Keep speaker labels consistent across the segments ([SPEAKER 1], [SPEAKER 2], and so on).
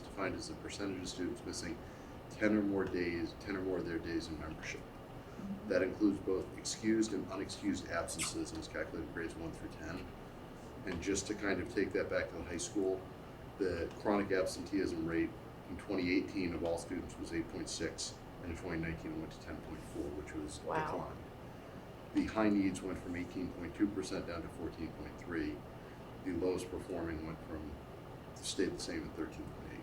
[SPEAKER 1] defined as the percentage of students missing ten or more days, ten or more of their days in membership. That includes both excused and unexcused absences and is calculated in grades one through ten. And just to kind of take that back to the high school, the chronic absenteeism rate in twenty eighteen of all students was eight point six, and in twenty nineteen it went to ten point four, which was a
[SPEAKER 2] Wow.
[SPEAKER 1] decline. The high needs went from eighteen point two percent down to fourteen point three. The lowest performing went from, stayed the same at thirteen point eight.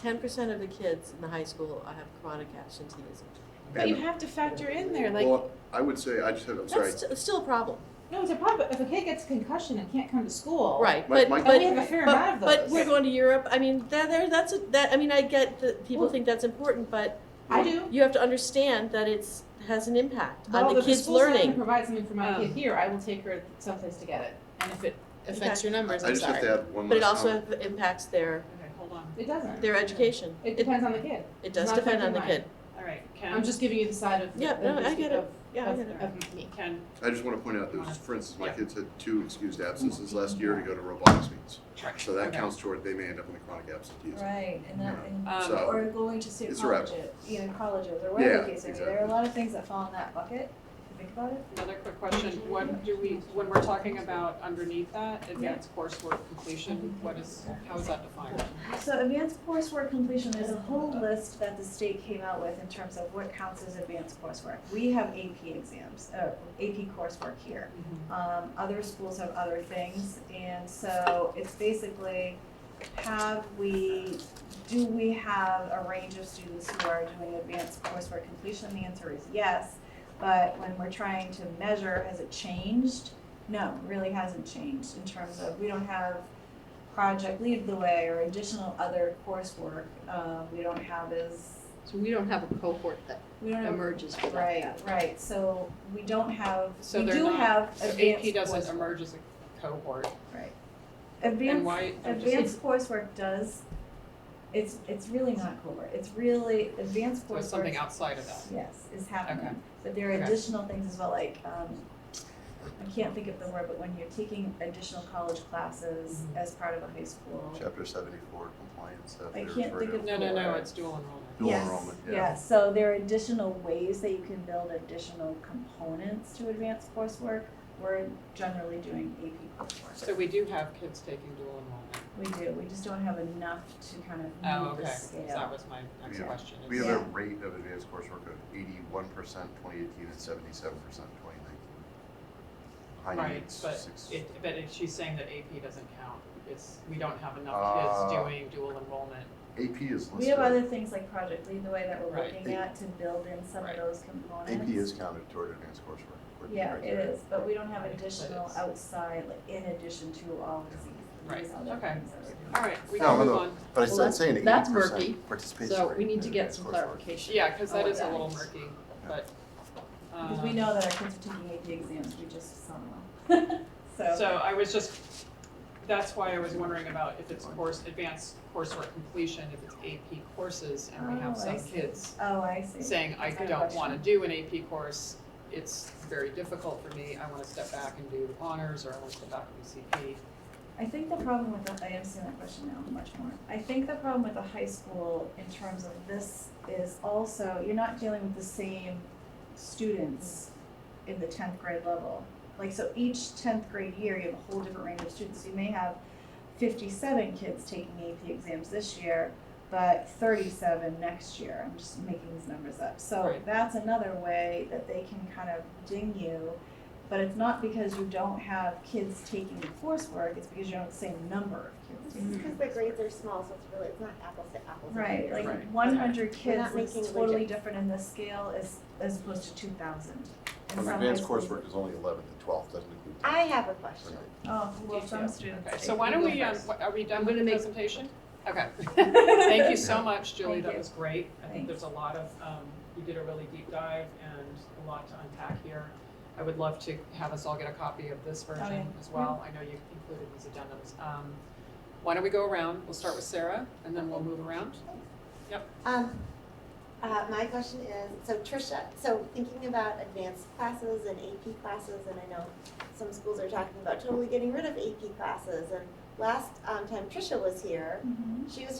[SPEAKER 2] Ten percent of the kids in the high school have chronic absenteeism.
[SPEAKER 3] But you have to factor in there, like,
[SPEAKER 1] Well, I would say, I just have, I'm sorry,
[SPEAKER 2] That's st- still a problem,
[SPEAKER 3] no, it's a problem. If a kid gets a concussion and can't come to school,
[SPEAKER 2] right?
[SPEAKER 1] My-
[SPEAKER 2] But
[SPEAKER 1] my-
[SPEAKER 3] And we have
[SPEAKER 2] but
[SPEAKER 3] a fair amount
[SPEAKER 2] but,
[SPEAKER 3] of
[SPEAKER 2] but
[SPEAKER 3] those.
[SPEAKER 2] we're going to Europe. I mean, that there that's a, that. I mean, I get that people
[SPEAKER 3] Well-
[SPEAKER 2] think that's important, but
[SPEAKER 3] I do.
[SPEAKER 2] you have to understand that it's has an impact
[SPEAKER 3] Well,
[SPEAKER 2] on the
[SPEAKER 3] if
[SPEAKER 2] kids'
[SPEAKER 3] school's not gonna
[SPEAKER 2] learning.
[SPEAKER 3] Provide something for my
[SPEAKER 4] Um,
[SPEAKER 3] kid here. I will take her someplace to get it.
[SPEAKER 4] And if it affects your
[SPEAKER 1] I
[SPEAKER 4] numbers, I'm
[SPEAKER 1] just have to
[SPEAKER 4] sorry.
[SPEAKER 1] add one
[SPEAKER 2] But it
[SPEAKER 1] last
[SPEAKER 2] also
[SPEAKER 1] comment.
[SPEAKER 2] have- impacts their,
[SPEAKER 4] Okay, hold on.
[SPEAKER 3] It doesn't.
[SPEAKER 2] their education.
[SPEAKER 3] It depends on the kid.
[SPEAKER 2] It does
[SPEAKER 3] not
[SPEAKER 2] depend on the
[SPEAKER 3] affecting
[SPEAKER 2] kid.
[SPEAKER 4] All right,
[SPEAKER 3] I'm
[SPEAKER 4] Ken,
[SPEAKER 3] just giving you the side of
[SPEAKER 2] Yeah,
[SPEAKER 3] of,
[SPEAKER 2] no, I get it.
[SPEAKER 3] of-
[SPEAKER 2] Yeah, I
[SPEAKER 3] of-
[SPEAKER 2] get it.
[SPEAKER 3] of me.
[SPEAKER 4] Ken,
[SPEAKER 1] I just want to point out, there was, for instance, my
[SPEAKER 4] Yeah.
[SPEAKER 1] kids had two excused absences last year to go to robotics meets. So that
[SPEAKER 4] Okay.
[SPEAKER 1] counts toward, they may end up in the chronic absenteeism.
[SPEAKER 5] Right, and that, and,
[SPEAKER 4] um,
[SPEAKER 1] So-
[SPEAKER 5] or going to state
[SPEAKER 1] Uh, It's a rabbit.
[SPEAKER 5] colleges, you know, colleges, or whatever the
[SPEAKER 1] Yeah,
[SPEAKER 5] case may be, there are a
[SPEAKER 1] exactly.
[SPEAKER 5] lot of things that fall in that bucket, if you think about it.
[SPEAKER 4] another quick question, what do we, when we're talking about underneath that, advanced coursework completion, what is, how is that defined?
[SPEAKER 5] So advanced coursework completion, there's a whole list that the state came out with in terms of what counts as advanced coursework. We have AP exams, uh, AP coursework here. Um, other schools have other things, and so it's basically, have we, do we have a range of students who are doing advanced coursework completion? The answer is yes, but when we're trying to measure, has it changed? No, it really hasn't changed in terms of, we don't have project lead the way or additional other coursework, um, we don't have as,
[SPEAKER 6] So we don't have a cohort that
[SPEAKER 5] we don't have,
[SPEAKER 6] emerges for that.
[SPEAKER 5] right, right, so we don't have,
[SPEAKER 4] So
[SPEAKER 5] we
[SPEAKER 4] they're
[SPEAKER 5] do
[SPEAKER 4] not-
[SPEAKER 5] have
[SPEAKER 4] So
[SPEAKER 5] advanced
[SPEAKER 4] AP doesn't
[SPEAKER 5] coursework.
[SPEAKER 4] emerge as a cohort,
[SPEAKER 5] Right.
[SPEAKER 4] and
[SPEAKER 5] Advanced,
[SPEAKER 4] why, I'm just-
[SPEAKER 5] advanced coursework does, it's, it's really not cohort, it's really, advanced
[SPEAKER 4] so it's something
[SPEAKER 5] coursework,
[SPEAKER 4] outside of that.
[SPEAKER 5] yes, is
[SPEAKER 4] Okay.
[SPEAKER 5] happening. But there are
[SPEAKER 4] Okay.
[SPEAKER 5] additional things as well, like, um, I can't think of the word, but when you're taking additional college classes
[SPEAKER 4] Mhm.
[SPEAKER 5] as part of a high school.
[SPEAKER 1] Chapter seventy-four compliance that
[SPEAKER 5] I
[SPEAKER 1] they
[SPEAKER 5] can't
[SPEAKER 1] refer
[SPEAKER 5] think
[SPEAKER 1] to.
[SPEAKER 5] of-
[SPEAKER 4] No, no, no, it's dual enrollment.
[SPEAKER 1] Dual
[SPEAKER 5] Yes,
[SPEAKER 1] enrollment, yeah.
[SPEAKER 5] so there are additional ways that you can build additional components to advanced coursework, we're generally doing AP coursework.
[SPEAKER 4] So we do have kids taking dual enrollment.
[SPEAKER 5] We do, we just don't have enough to kind
[SPEAKER 4] Oh,
[SPEAKER 5] of move
[SPEAKER 4] okay,
[SPEAKER 5] the
[SPEAKER 4] 'cause
[SPEAKER 5] scale.
[SPEAKER 4] that was my next
[SPEAKER 1] Yeah.
[SPEAKER 4] question.
[SPEAKER 1] We
[SPEAKER 4] is-
[SPEAKER 1] have a rate of advanced coursework of eighty-one percent twenty eighteen and seventy-seven percent twenty nineteen. High
[SPEAKER 4] Right,
[SPEAKER 1] needs,
[SPEAKER 4] but
[SPEAKER 1] six.
[SPEAKER 4] it, but it- she's saying that AP doesn't count, it's, we don't have enough kids
[SPEAKER 1] Uh,
[SPEAKER 4] doing dual enrollment.
[SPEAKER 1] AP is
[SPEAKER 5] We have other
[SPEAKER 1] listed,
[SPEAKER 5] things like Project Lead the Way that we're
[SPEAKER 4] Right.
[SPEAKER 5] looking at to build in some
[SPEAKER 4] Right.
[SPEAKER 5] of those components.
[SPEAKER 1] AP is counted toward advanced coursework. according to
[SPEAKER 5] Yeah, it
[SPEAKER 1] criteria.
[SPEAKER 5] is, but we don't have
[SPEAKER 4] Right, but
[SPEAKER 5] additional
[SPEAKER 4] it's-
[SPEAKER 5] outside, like in addition to all of these, these
[SPEAKER 4] Right,
[SPEAKER 5] other
[SPEAKER 4] okay.
[SPEAKER 5] things that we're doing.
[SPEAKER 4] All right, we
[SPEAKER 1] No,
[SPEAKER 4] can move
[SPEAKER 1] although-
[SPEAKER 4] on.
[SPEAKER 1] But
[SPEAKER 6] Well,
[SPEAKER 1] it's
[SPEAKER 6] that's-
[SPEAKER 1] saying eighty
[SPEAKER 6] that's murky,
[SPEAKER 1] percent participation
[SPEAKER 6] So
[SPEAKER 1] rate
[SPEAKER 6] we need
[SPEAKER 1] in
[SPEAKER 6] to get
[SPEAKER 1] advanced
[SPEAKER 6] some
[SPEAKER 1] coursework.
[SPEAKER 6] clarification.
[SPEAKER 4] Yeah, because that
[SPEAKER 5] Oh,
[SPEAKER 4] is a
[SPEAKER 5] yeah.
[SPEAKER 4] little murky, but.
[SPEAKER 5] Because we
[SPEAKER 4] um,
[SPEAKER 5] know that our kids are taking AP exams, we just saw them. So,
[SPEAKER 4] So I was just, that's why I was wondering about if it's course, advanced coursework completion, if it's AP courses, and we have
[SPEAKER 5] Oh, I
[SPEAKER 4] some
[SPEAKER 5] see.
[SPEAKER 4] kids
[SPEAKER 5] oh, I see.
[SPEAKER 4] saying, I
[SPEAKER 5] That's my
[SPEAKER 4] don't wanna
[SPEAKER 5] question.
[SPEAKER 4] do an AP course, it's very difficult for me, I wanna step back and do honors, or I wanna step back and do CP.
[SPEAKER 5] I think the problem with the, I am seeing that question now much more. I think the problem with the high school in terms of this is also, you're not dealing with the same students in the tenth grade level. Like, so each tenth grade year, you have a whole different range of students. You may have fifty-seven kids taking AP exams this year, but thirty-seven next year. I'm just making these numbers up. So
[SPEAKER 4] Right.
[SPEAKER 5] that's another way that they can kind of ding you but it's not because you don't have kids taking the coursework, it's because you don't have the same number of kids.
[SPEAKER 7] It's because the grades are small, so it's really, it's not apples to apples.
[SPEAKER 5] Right,
[SPEAKER 4] Right.
[SPEAKER 5] like one hundred
[SPEAKER 7] We're
[SPEAKER 5] kids
[SPEAKER 7] not
[SPEAKER 5] is
[SPEAKER 7] making
[SPEAKER 5] totally
[SPEAKER 7] widgets.
[SPEAKER 5] different and the scale is as opposed to two thousand.
[SPEAKER 1] Well, advanced coursework is only eleventh and twelfth, doesn't include.
[SPEAKER 7] I have a question.
[SPEAKER 5] Oh, well, some
[SPEAKER 4] Detail.
[SPEAKER 5] students.
[SPEAKER 4] Okay,
[SPEAKER 5] take-
[SPEAKER 4] so why don't
[SPEAKER 5] you go
[SPEAKER 4] we, um,
[SPEAKER 5] first.
[SPEAKER 4] wh- are we done with the
[SPEAKER 6] gonna make-
[SPEAKER 4] presentation? Okay. Thank you so much, Julie,
[SPEAKER 5] Thank
[SPEAKER 4] that
[SPEAKER 5] you.
[SPEAKER 4] was great. I think
[SPEAKER 5] Thanks.
[SPEAKER 4] there's a lot of, um, you did a really deep dive and a lot to unpack here. I would love to have us all get a copy of this
[SPEAKER 5] Oh, yeah.
[SPEAKER 4] version as well. I know you included these addendums. Um, Why don't we go around? We'll start with Sarah and then we'll move around.
[SPEAKER 7] Um, uh, my question is, so Trisha, so thinking about advanced classes and AP classes, and I know some schools are talking about totally getting rid of AP classes, and last, um, time Trisha was here,
[SPEAKER 5] Mhm.
[SPEAKER 7] she was